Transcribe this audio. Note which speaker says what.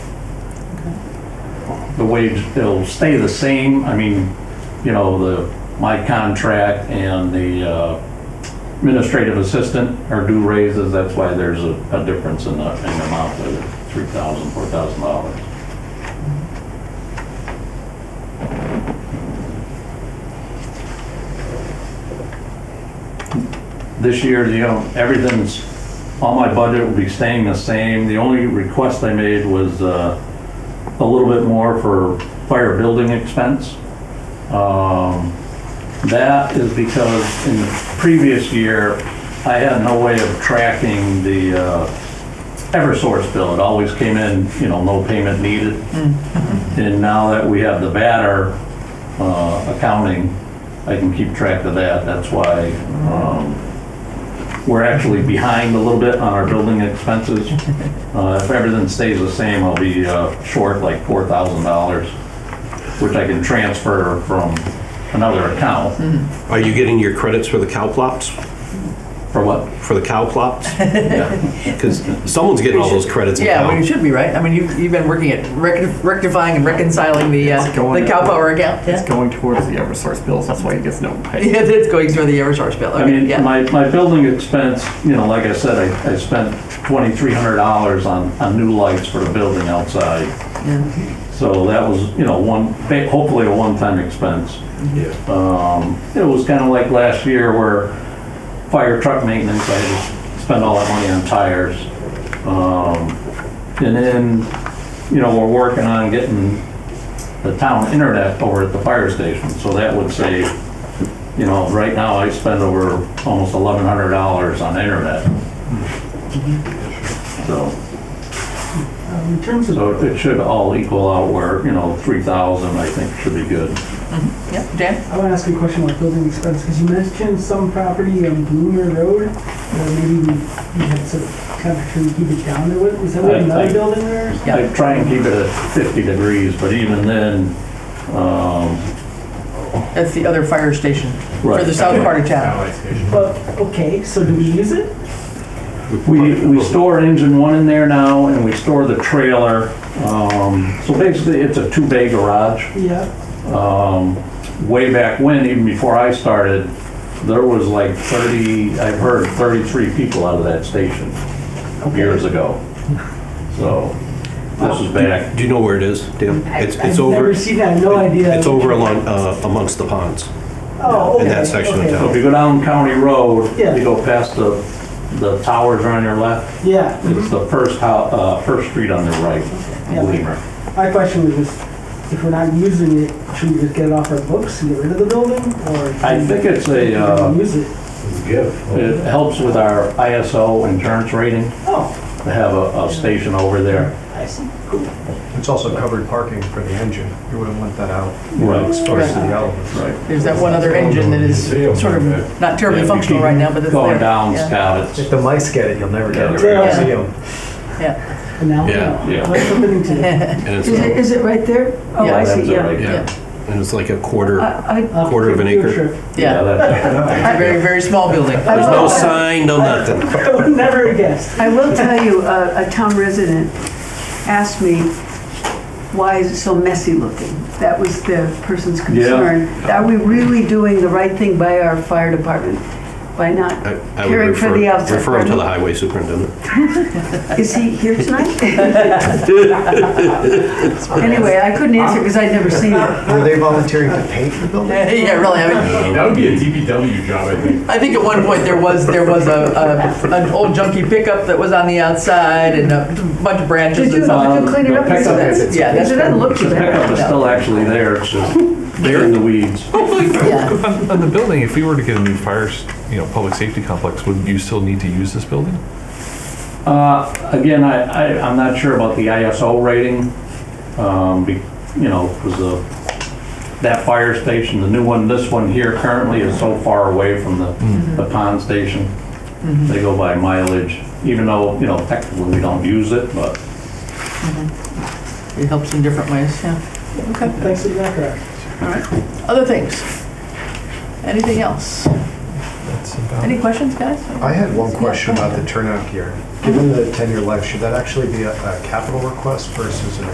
Speaker 1: the wage, it'll stay the same, I mean, you know, the, my contract and the uh, administrative assistant are due raises, that's why there's a, a difference in the, in the amount of three thousand, four thousand dollars. This year, you know, everything's, all my budget will be staying the same, the only request I made was, uh, a little bit more for fire building expense. Um, That is because in the previous year, I had no way of tracking the uh, Eversource bill. It always came in, you know, no payment needed. And now that we have the batter uh, accounting, I can keep track of that. That's why um, we're actually behind a little bit on our building expenses. Uh, If everything stays the same, I'll be uh, short like four thousand dollars, which I can transfer from another account.
Speaker 2: Are you getting your credits for the cow plots?
Speaker 1: For what?
Speaker 2: For the cow plots?
Speaker 1: Yeah.
Speaker 2: Because someone's getting all those credits. in
Speaker 3: Yeah, well, you
Speaker 2: town.
Speaker 3: should be, right? I mean, you've, you've been working at rec- rectifying and reconciling the, uh,
Speaker 4: It's going
Speaker 3: the cow power account.
Speaker 4: It's
Speaker 3: Yeah,
Speaker 4: going towards the Eversource bills, that's why he gets no pay.
Speaker 3: Yeah, it's going through the Eversource bill.
Speaker 1: I
Speaker 3: Okay,
Speaker 1: mean,
Speaker 3: yeah.
Speaker 1: my, my building expense, you know, like I said, I, I spent twenty-three hundred dollars on, on new lights for the building outside. So that was, you know, one, hopefully a one-time expense.
Speaker 2: Yeah.
Speaker 1: Um, It was kind of like last year where fire truck maintenance, I had to spend all that money on tires. Um, And then, you know, we're working on getting the town internet over at the fire station, so that would save, you know, right now I spend over almost eleven hundred dollars on internet. So. In terms of. So it should all equal out where, you know, three thousand, I think, should be good.
Speaker 3: Yeah, Dan?
Speaker 5: I want to ask you a question about building expense, because you mentioned some property on Bloomer Road, where maybe we we had some, kind of, should we keep it down to it? Is that
Speaker 1: I-
Speaker 5: what
Speaker 1: I-
Speaker 5: another building there?
Speaker 3: Yeah.
Speaker 1: I try and keep it at 50 degrees, but even then, um,
Speaker 3: That's the other fire station for
Speaker 1: Right.
Speaker 3: the south part of town.
Speaker 5: But, okay, so do we use it?
Speaker 1: we, we store engine one in there now and we store the trailer. Um, So basically, it's a two-bay garage.
Speaker 5: Yeah.
Speaker 1: Um, Way back when, even before I started, there was like 30, I've heard 33 people out of that station years ago. So this is back,
Speaker 2: Do you know where it is, Dan? It's,
Speaker 5: I've
Speaker 2: it's over,
Speaker 5: never seen that, no idea.
Speaker 2: it's over along, uh, amongst the ponds.
Speaker 5: Oh,
Speaker 2: in that
Speaker 5: okay,
Speaker 2: section of
Speaker 5: okay.
Speaker 1: so
Speaker 2: town.
Speaker 1: if you go down County Road,
Speaker 5: Yeah.
Speaker 1: you go past the, the towers are on your left.
Speaker 5: Yeah,
Speaker 1: It's the first hou- uh, first street on the right,
Speaker 5: Yeah.
Speaker 1: Weimer.
Speaker 5: my question was just, if we're not using it, should we just get it off our books and get rid of the building, or?
Speaker 1: I think it's a, uh,
Speaker 5: Use it?
Speaker 1: it helps with our ISO insurance rating
Speaker 5: Oh,
Speaker 1: to have a, a station over there.
Speaker 5: I see, cool.
Speaker 6: It's also covered parking for the engine. You wouldn't want that out.
Speaker 1: Right.
Speaker 6: Exposed to the elements.
Speaker 1: Right.
Speaker 3: There's that one other engine that is sort of not terribly functional right now, but it's there.
Speaker 1: Going down,
Speaker 3: Yeah.
Speaker 1: Scott, it's,
Speaker 6: If the mics get it, you'll never get it.
Speaker 5: Yeah.
Speaker 6: See 'em.
Speaker 3: Yeah,
Speaker 5: And now, we
Speaker 2: Yeah.
Speaker 5: know.
Speaker 1: Yeah.
Speaker 5: What's happening to it?
Speaker 2: And it's,
Speaker 7: Is it,
Speaker 2: uh,
Speaker 7: is it right there? Oh,
Speaker 3: Yeah,
Speaker 7: I
Speaker 1: that's
Speaker 7: see,
Speaker 1: it
Speaker 7: yeah. Uh,
Speaker 1: right there.
Speaker 3: yeah,
Speaker 2: and it's like a quarter,
Speaker 7: I, I-
Speaker 5: Off
Speaker 2: Quarter of
Speaker 5: the
Speaker 2: an
Speaker 5: field
Speaker 2: acre.
Speaker 5: trip.
Speaker 3: yeah.
Speaker 1: that's-
Speaker 3: It's a very, very small building.
Speaker 2: there's no sign, no nothing.
Speaker 5: I would never have guessed.
Speaker 7: I will tell you, uh, a, a town resident asked me, why is it so messy looking? That was the person's concern. Are we really doing the right thing by our fire department by not
Speaker 2: I- I would
Speaker 7: caring for
Speaker 2: refer,
Speaker 7: the outside?
Speaker 2: refer him to the highway superintendent.
Speaker 7: Is he here tonight? Anyway, I couldn't answer because I'd never seen it.
Speaker 6: Were they volunteering to paint the building?
Speaker 3: Yeah, really, I mean,
Speaker 8: That would be a DPW job, I think.
Speaker 3: I think at one point there was, there was a, a, an old junky pickup that was on the outside and a bunch of branches
Speaker 7: Did you,
Speaker 3: and
Speaker 7: did
Speaker 3: stuff.
Speaker 7: you clean it up?
Speaker 1: The pickup
Speaker 7: Because
Speaker 1: is-
Speaker 3: Yeah, that's-
Speaker 7: It doesn't look too
Speaker 1: The pickup
Speaker 7: bad.
Speaker 1: is still actually there, it's just, they're in the weeds.
Speaker 3: Yeah.
Speaker 9: On, on the building, if we were to get a new fire, s- you know, public safety complex, would you still need to use this building?
Speaker 1: Uh, Again, I, I, I'm not sure about the ISO rating, um, be- you know, because the, that fire station, the new one, this one here currently is so far away from the, the pond station. They go by mileage, even though, you know, technically we don't use it, but
Speaker 3: It helps in different ways, yeah.
Speaker 5: Thanks for the background.
Speaker 3: All right. Other things? Anything else?
Speaker 9: That's about.
Speaker 3: Any questions, guys?
Speaker 6: I had one question about the turnout gear. Given the 10-year life, should that actually be a a capital request versus an